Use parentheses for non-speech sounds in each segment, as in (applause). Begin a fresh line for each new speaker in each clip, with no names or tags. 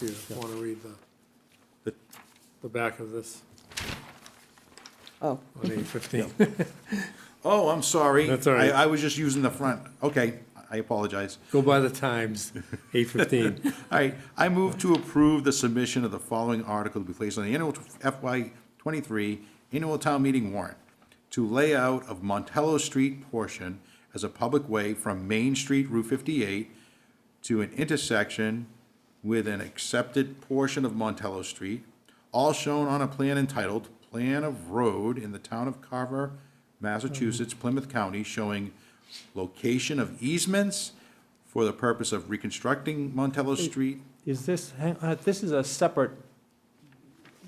if you want to read the, the back of this
Oh,
on eight fifteen.
Oh, I'm sorry.
That's all right.
I, I was just using the front. Okay, I apologize.
(laughs) Go by the times, eight
(laughs)
fifteen.
All right, I move to approve the submission of the following article to be placed on the annual FY twenty-three annual town meeting warrant to lay out of Montello Street portion as a public way from Main Street Route fifty-eight to an intersection with an accepted portion of Montello Street, all shown on a plan entitled Plan of Road in the Town of Carver, Massachusetts, Plymouth County, showing location of easements for the purpose of reconstructing Montello Street.
Is this, hang- uh, this is a separate,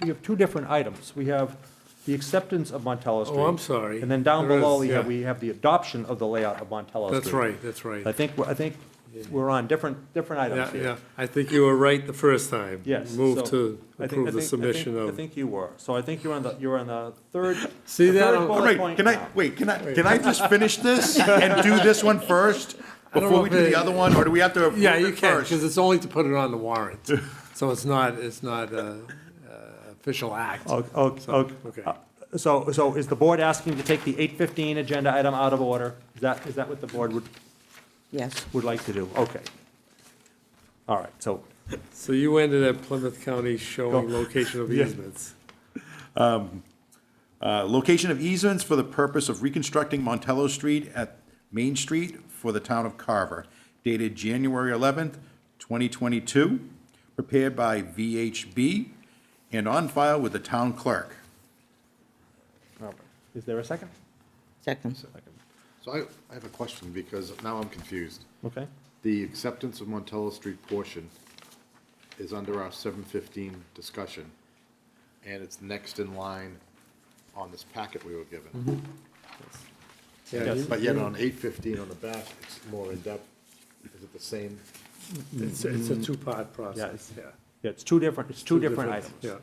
we have two different items. We have the acceptance of Montello Street.
Oh, I'm sorry.
And then down
There is,
below, we have,
yeah.
we have the adoption of the layout of Montello Street.
That's right, that's right.
I think, we're- I think we're on different, different items
Yeah,
here.
yeah, I think you were right the first time.
Yes.
Move
so
to
I think-
approve
I
the
think- I think-
submission
I
of,
think you were. So I think you're on the, you're on the third.
(laughs) See
the
that?
third
I'm-
bullet
All right,
point
can
now.
I, wait, can I, can I just finish this and do this one first?
don't
Before
know
we
if
do
it-
the other one, or do we have to approve
yeah, you
it
can,
first?
because it's only to put it on the
(laughs)
warrant. So it's not, it's not a uh, official act.
Oh, oh, oh,
okay.
uh, So, so is the board asking to take the 8:15 agenda item out of order? Is that, is that what the board would,
yes.
would like to do? Okay. All right, so
So you ended at Plymouth County showing location
(laughs)
of easements.
Uh, Location of easements for the purpose of reconstructing Montello Street at Main Street for the town of Carver, dated January 11th, 2022, prepared by VHB and on file with the town clerk.
is there a second?
Second.
So I, I have a question because now I'm confused.
Okay.
The acceptance of Montello Street portion is under our seven fifteen discussion, and it's next in line on this packet we were given.
Yeah, you-
But yet on eight fifteen on the back, it's more in-depth. Is it the same?
It's, it's a two-part process,
it's-
yeah.
Yeah, it's two different, it's two different items.
Yeah.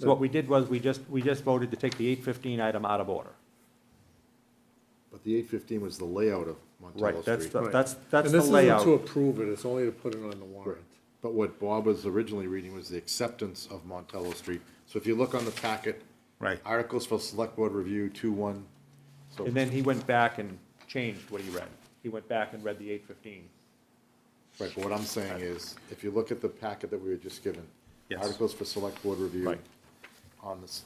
So what we did was, we just, we just voted to take the 8:15 item out of order.
But the eight fifteen was the layout of Montello
Right, that's
Street.
the,
Right.
that's, that's
And
the
this isn't to
layout.
approve it, it's only to put it on the warrant.
But what Bob was originally reading was the acceptance of Montello Street. So if you look on the packet.
Right.
Articles for Select Board Review, two, one. So
And then he went back and changed what he read. He went back and read the 8:15.
Right, but what I'm saying is, if you look at the packet that we were just given,
Yes.
articles for select board review
Right.
on this,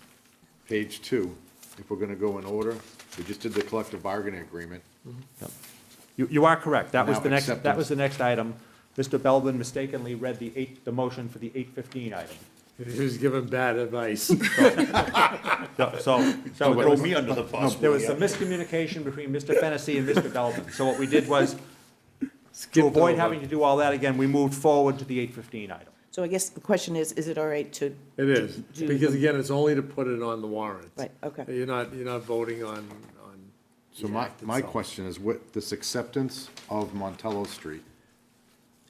page two, if we're gonna go in order, we just did the collective bargaining agreement.
Yep. You, you are correct. That was
Now
the next, that
acceptance.
was the next item. Mr. Belvin mistakenly read the eight, the motion for the eight fifteen item.
(laughs) He was given bad
(laughs)
advice.
So- So, so there was,
under the bus.
there was some miscommunication between Mr. Fennessy and Mr. Belvin. So what we did was, to
Skipped
avoid
over.
having to do all that again, we moved forward to the eight fifteen item.
So I guess the question is, is it all right to,
It is,
do
because again, it's only to put it on the warrant.
Right, okay.
You're not, you're not voting on, on.
So
the
my,
act
my
itself.
question is, what, this acceptance of Montello Street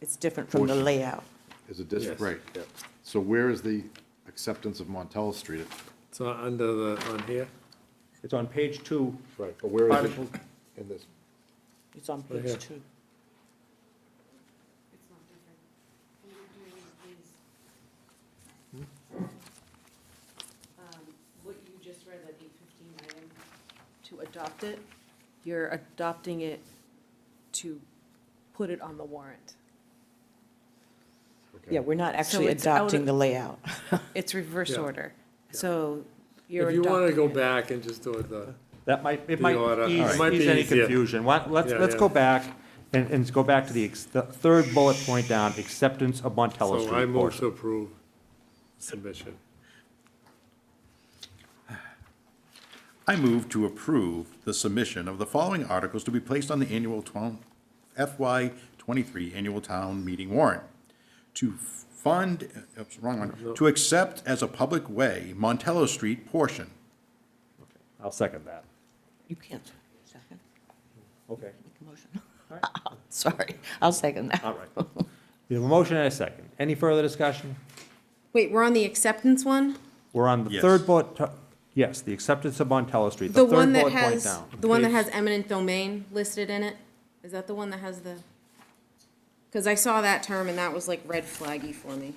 it's different from the
Portion.
layout?
is a district,
Yes,
right? So where is the acceptance of Montello Street?
It's not under the, on here,
It's on page two.
Right, but where is it
Article-
in this?
It's on
here.
page two.
It's not different. What you're doing is these.
Hmm?
Um, What you just read, that eight fifteen item, to adopt it, you're adopting it to put it on the warrant.
Okay.
Yeah, we're not actually
it's out
adopting
of-
the layout.
It's reverse
Yeah.
order, so you're
if
adopting
you
it.
wanna go back and just do it the,
That might, it
The
might
order. Alright.
ease,
Might be
ease any
easier.
confusion. Why- Let's,
Yeah,
let's
yeah.
go back and, and go back to the, ex- the third bullet point down, acceptance of Montello
so I
Street
move to
portion.
approve submission.
I move to approve the submission of the following articles to be placed on the annual town, FY twenty-three annual town meeting warrant. To fund, oops, wrong one, to accept as a public way Montello Street portion.
I'll second that.
You can't second,
Okay.
make a motion. (laughs)
All right.
Sorry, I'll second that.
All
(laughs)
right. We have a motion and a second. Any further discussion?
Wait, we're on the acceptance one?
We're on the
Yes.
third bullet, to- yes, the acceptance of Montello Street, the
The one
third
that
bullet point
has,
down.
the one that
Page-
has eminent domain listed in it? Is that the one that has the? Because I saw that term and that was like red flaggy for me.